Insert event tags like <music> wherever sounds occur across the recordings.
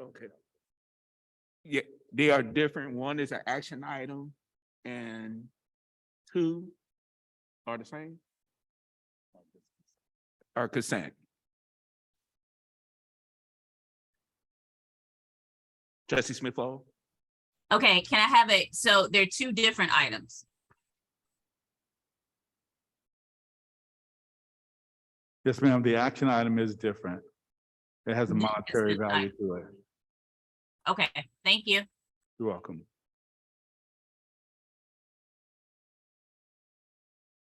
Okay. Yeah, they are different. One is an action item and two are the same? Are consent. Trustee Smith Fall? Okay, can I have it? So they're two different items. Yes, ma'am, the action item is different. It has a Yes, monetary it's not- value to it. Okay, thank you. You're welcome.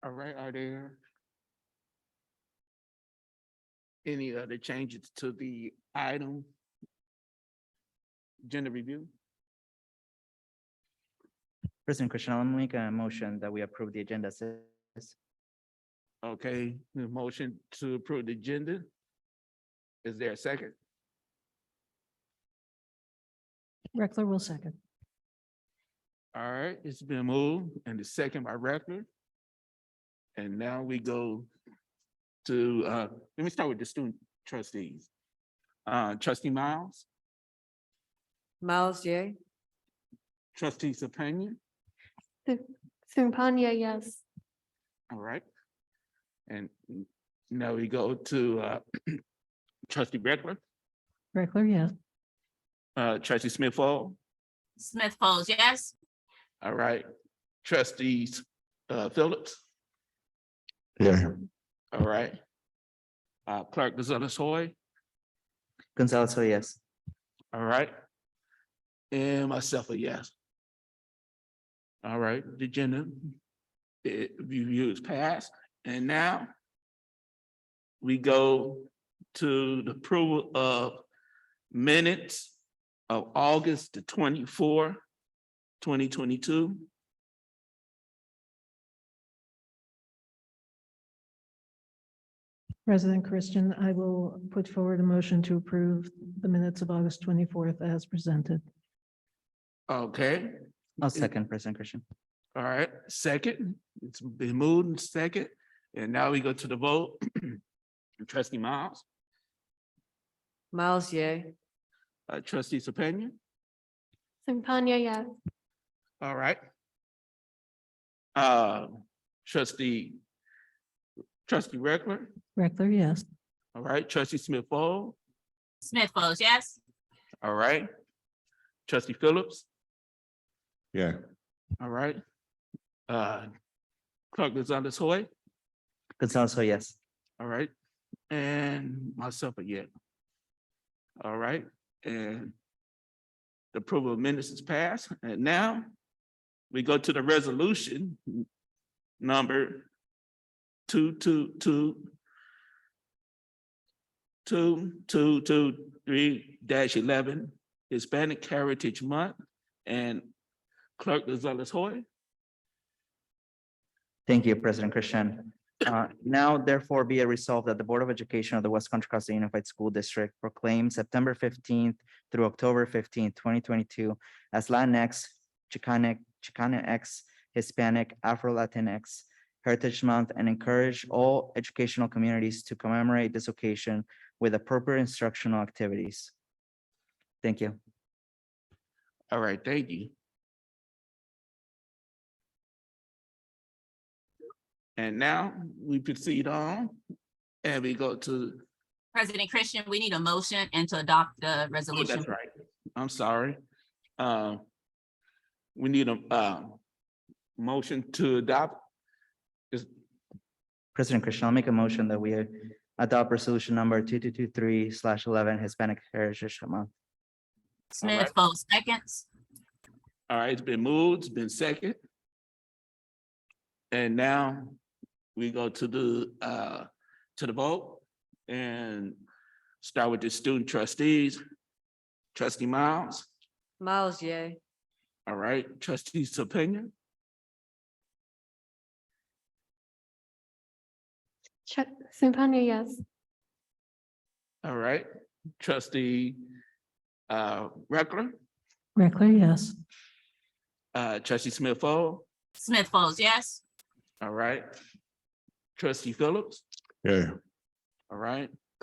All right, are there any other changes to the item? Agenda review? President Christian, I'll make a motion that we approve the agenda as is. Okay, the motion to approve the agenda. Is there a second? Reckler will second. All right, it's been moved and the second by Reckler. And now we go to, uh, let me start with the student trustees. Uh, trustee Miles, Miles, yay. trustee Sapanya, Sumpanya, yes. all right? And now we go to, uh, <clears throat> trustee Reckler, Reckler, yes. uh, trustee Smith Fall, Smith Folds, yes? all right? Trustees, uh, Phillips, Yeah. all right? Uh, clerk Gonzalez Hoy, Gonzalez, oh, yes. All right. And myself a yes. All right, the agenda. It review is passed and now. We go to the approval of minutes of August the twenty-four, twenty twenty-two. President Christian, I will put forward a motion to approve the minutes of August twenty-fourth as presented. Okay, I'll Is- second, President Christian. all right, second, it's been moved and second, and now we go to the vote. <clears throat> Trustee Miles, Miles, yay. uh, trustee Sapanya. Sumpanya, yes. All right. Uh, trustee, trustee Reckler, Reckler, yes. all right, trustee Smith Fall, Smith Folds, yes? all right. Trustee Phillips, Yeah. all right. Uh, Clerk Gonzalez Hoy, Gonzalez, oh, yes. all right, and myself again. All right, and the approval of minutes is passed, and now we go to the resolution number two, two, two, two, two, two, three dash eleven Hispanic Heritage Month, and Clerk Gonzalez Hoy. Thank you, President Christian. Uh, Now therefore be it resolved that the Board of Education of the West Contra Costa Unified School District proclaims September fifteenth through October fifteenth, twenty twenty-two as Latinx, Chicanic, Chicanx, Hispanic, Afro-Latinx Heritage Month and encourage all educational communities to commemorate this occasion with appropriate instructional activities. Thank you. All right, thank you. And now we proceed on and we go to, President Christian, we need a motion and to adopt the oh, resolution. that's right, I'm sorry. Uh, We need a, uh, motion to adopt. President Christian, I'll make a motion that we adopt resolution number two two two three slash eleven Hispanic Heritage Month. Smith Folds, seconds? All right, it's been moved, it's been second. And now we go to the, uh, to the vote and start with the student trustees. Trustee Miles. Miles, yay. All right, trustees opinion, Ch- Sumpanya, yes. all right, trustee uh Reckler, Reckler, yes. uh trustee Smith Fall, Smith Folds, yes? all right. Trustee Phillips, Yeah. all right,